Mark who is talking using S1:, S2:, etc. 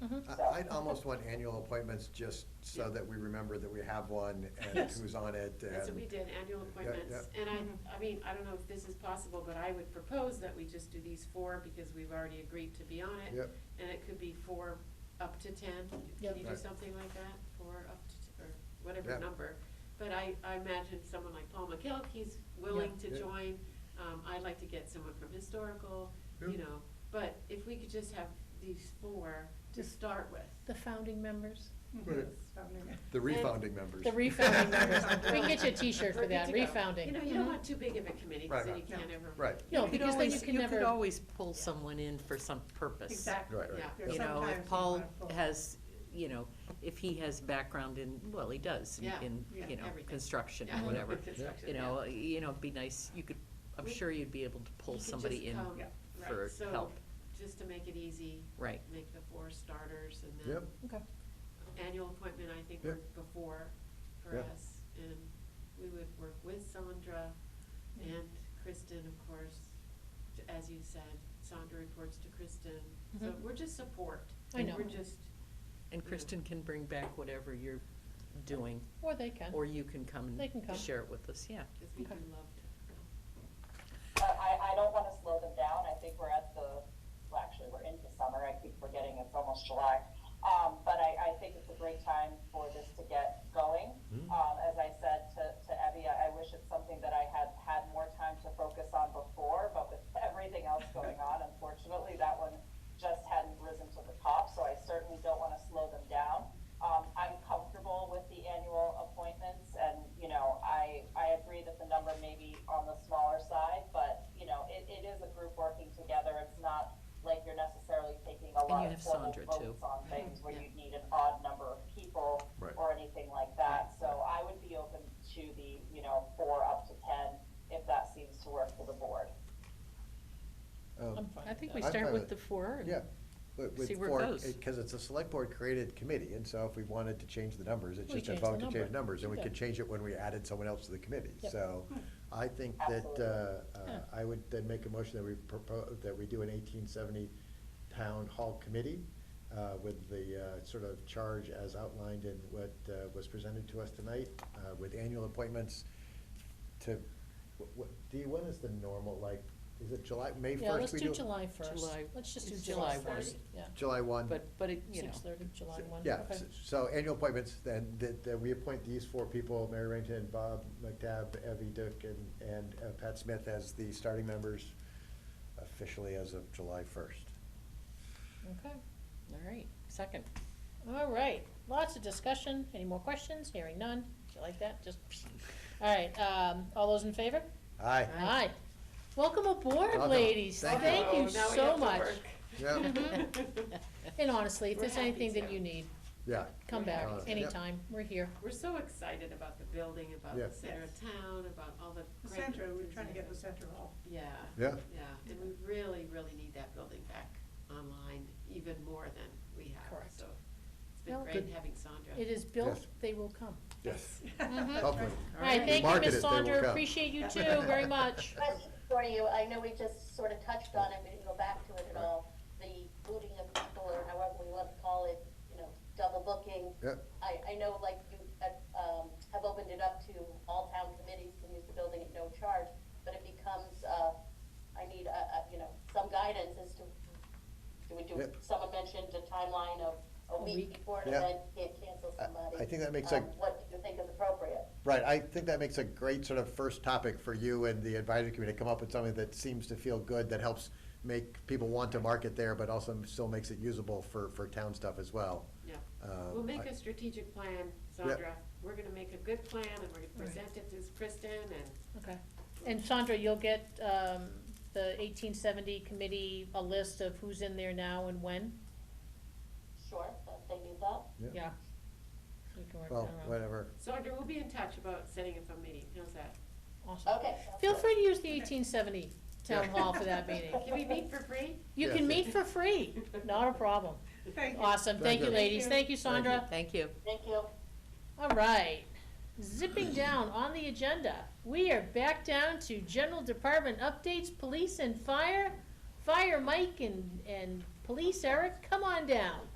S1: Mhm.
S2: I- I'd almost want annual appointments just so that we remember that we have one and
S1: Yes.
S2: who's on it
S3: That's what we
S2: and,
S3: did, annual appointments. And
S1: Mm-hmm.
S3: I, I mean, I don't know if this is possible, but I would propose that we just do these four because we've already agreed to be on it.
S2: yep,
S3: And it could be four up to ten.
S1: Yep.
S3: Can you do
S2: Right.
S3: something like that? Four up to, t- or
S2: Yeah.
S3: whatever number. But I, I imagine someone like Paul McKelk, he's willing to
S2: Yeah.
S3: join. Um, I'd like to get someone from historical,
S2: Yeah.
S3: you know. But if we could just have these four to
S1: Just-
S3: start with.
S1: The founding members,
S2: Right. the refounding members.
S1: the refounding members. We can get you a
S3: We're
S1: T-shirt for
S3: good
S1: that,
S3: to go.
S1: refounding.
S3: You know, you don't
S1: Mhm.
S3: want too big of a committee,
S2: Right,
S3: because then you
S2: right.
S3: can't ever.
S2: Right.
S1: No,
S4: You could
S1: because then you
S4: always,
S1: can
S4: you could
S1: never,
S4: always pull someone in for some purpose.
S3: Exactly,
S2: Right, right.
S3: yeah.
S2: There's
S4: You know,
S5: sometimes
S4: if
S5: you
S4: Paul
S5: wanna pull.
S4: has, you know, if he has background in, well, he does, in-
S3: Yeah,
S4: in,
S5: yeah,
S4: you know,
S3: everything.
S4: construction
S3: Yeah.
S4: or whatever.
S3: Construction,
S4: You
S3: yeah.
S4: know, you know, it'd be nice, you could, I'm
S3: We-
S4: sure you'd be able to
S3: You
S4: pull
S3: could
S4: somebody
S3: just
S4: in
S3: come, right,
S4: for
S3: so
S4: help,
S3: Just to make it easy,
S4: right.
S3: make the four starters and then
S2: Yep,
S1: okay,
S3: annual appointment, I think, worked before for
S2: Yeah.
S3: us. And we would work with Sandra
S1: Mm-hmm.
S3: and Kristen, of course, t- as you said, Sandra reports to Kristen. So
S1: Mhm.
S3: we're just support.
S1: I know.
S3: We're just,
S4: And
S3: Yeah.
S4: Kristen can bring back whatever you're doing,
S1: or they can.
S4: or you can come
S1: They can come.
S4: and share it with us, yeah.
S3: because we do
S1: Okay.
S3: love to.
S6: I, I- I don't want to slow them down. I think we're at the, well, actually, we're into summer. I keep forgetting it's almost July. Um, but I, I think it's a great time for this to get going. Um, as I said to, to Abby, I, I wish it's something that I had had more time to focus on before, but with everything else going on, unfortunately, that one just hadn't risen to the top, so I certainly don't want to slow them down. Um, I'm comfortable with the annual appointments and, you know, I, I agree that the number may be on the smaller side, but, you know, it, it is a group working together. It's not like you're necessarily taking a
S4: And
S6: lot
S4: you
S6: of
S4: have
S6: formal
S4: Sandra, too.
S6: votes on things where you'd need an odd number of people
S2: Right.
S6: or anything like that. So I would be open to the, you know, four up to ten if that seems to work for the board.
S2: um,
S1: Um, I think we
S2: I'm fine
S4: start
S2: with
S4: with the four and.
S2: yeah. But with
S4: See where it
S2: four,
S4: goes.
S2: because it's a select board created committee, and so if we wanted to change the numbers, it's
S1: We
S2: just a
S1: change the
S2: vote to change
S1: number.
S2: numbers, and we
S1: Yeah.
S2: could change it when we added someone else to the committee.
S1: Yep.
S2: So I think that, uh, uh,
S1: Yeah.
S2: I would then make a motion that we propose, that we do an eighteen seventy town hall committee uh, with the uh, sort of charge as outlined in what uh, was presented to us tonight, uh, with annual appointments to, wh- wh- Dee, when is the normal, like, is it July, May first?
S1: Yeah, let's do July first.
S4: July-
S1: Let's just do
S4: it's
S1: July
S4: July
S1: first, yeah.
S2: July one.
S4: But, but it, you know.
S1: Six thirty, July
S2: So-
S1: one,
S2: Yeah,
S1: okay.
S2: s- so annual appointments, then, that, that we appoint these four people, Mary Rankin, Bob McDabb, Evie Duke, and, and uh, Pat Smith as the starting members officially as of July first.
S1: Okay,
S4: All right, second.
S1: all right, lots of discussion, any more questions, hearing none, you like that, just, all right, um, all those in favor?
S2: Aye.
S1: Aye. Welcome aboard,
S2: Welcome.
S1: ladies,
S2: Thank you.
S1: thank you
S3: Oh, now we
S1: so
S3: have to
S1: much. Mm-hmm.
S3: work.
S2: Yeah,
S4: uh,
S1: And honestly, if
S3: We're
S1: there's
S3: happy
S1: anything that
S3: to.
S1: you need,
S2: yeah,
S1: come back
S2: Honestly. Yep.
S1: anytime, we're here.
S3: We're so excited about the building, about
S2: Yeah.
S3: the center of town, about all the.
S5: The
S3: great
S5: center, we're trying to get the
S3: things.
S5: center all.
S3: Yeah.
S2: Yeah.
S3: Yeah, and we really, really need that building back online even more than we have,
S1: Correct.
S3: so. It's
S1: Well,
S3: been
S1: good.
S3: great having Sandra.
S1: It is built,
S2: Yes.
S1: they will come.
S2: yes,
S4: Mm-hmm.
S1: Mhm.
S2: hopefully.
S1: All right, thank you,
S2: Market it,
S1: Ms.
S2: they will
S1: Saunders,
S2: come.
S1: appreciate you too, very much.
S7: Question for you, I know we just sort of touched on it, we didn't go back to it at all, the booting of people, or however we want to call it, you know, double booking.
S2: Yep.
S7: I, I know like you, uh, um, have opened it up to all town committees can use the building at no charge, but it becomes, uh, I need, uh, uh, you know, some guidance as to, do we do,
S2: Yep.
S7: someone mentioned a timeline of
S1: A
S7: a
S1: week.
S7: week before an
S2: Yeah.
S7: event, can't cancel
S2: I-
S7: somebody.
S2: I think that makes
S7: Um,
S2: a-
S7: What do you think is appropriate?
S2: Right, I think that makes a great sort of first topic for you and the advisory committee, to come up with something that seems to feel good, that helps make people want to market there, but also still makes it usable for, for town stuff as well.
S3: Yeah.
S2: Uh,
S3: We'll
S2: I-
S3: make a strategic plan, Sandra. We're gonna make a good plan and we're gonna present it to Kristen and
S1: Okay, and Sandra, you'll get, um, the eighteen seventy committee, a list of who's in there now and when?
S7: Sure, if they need that.
S2: Yep.
S1: Yeah. We can work that
S2: Well,
S1: around,
S2: whatever,
S3: Sandra, we'll be in touch about setting up a meeting. How's that?
S1: awesome.
S7: Okay.
S1: Feel free to use the eighteen seventy town
S2: Yeah.
S1: hall for that meeting.
S3: Can we meet for free?
S1: You
S2: Yeah.
S1: can meet for free, not a problem.
S5: Thank you.
S1: Awesome,
S2: Thank
S1: thank you,
S2: you.
S1: ladies, thank you,
S2: Thank you.
S1: Sandra.
S4: Thank you.
S7: Thank you.
S1: All right, zipping down on the agenda, we are back down to general department updates, police and fire. Fire Mike and, and police Eric, come on down.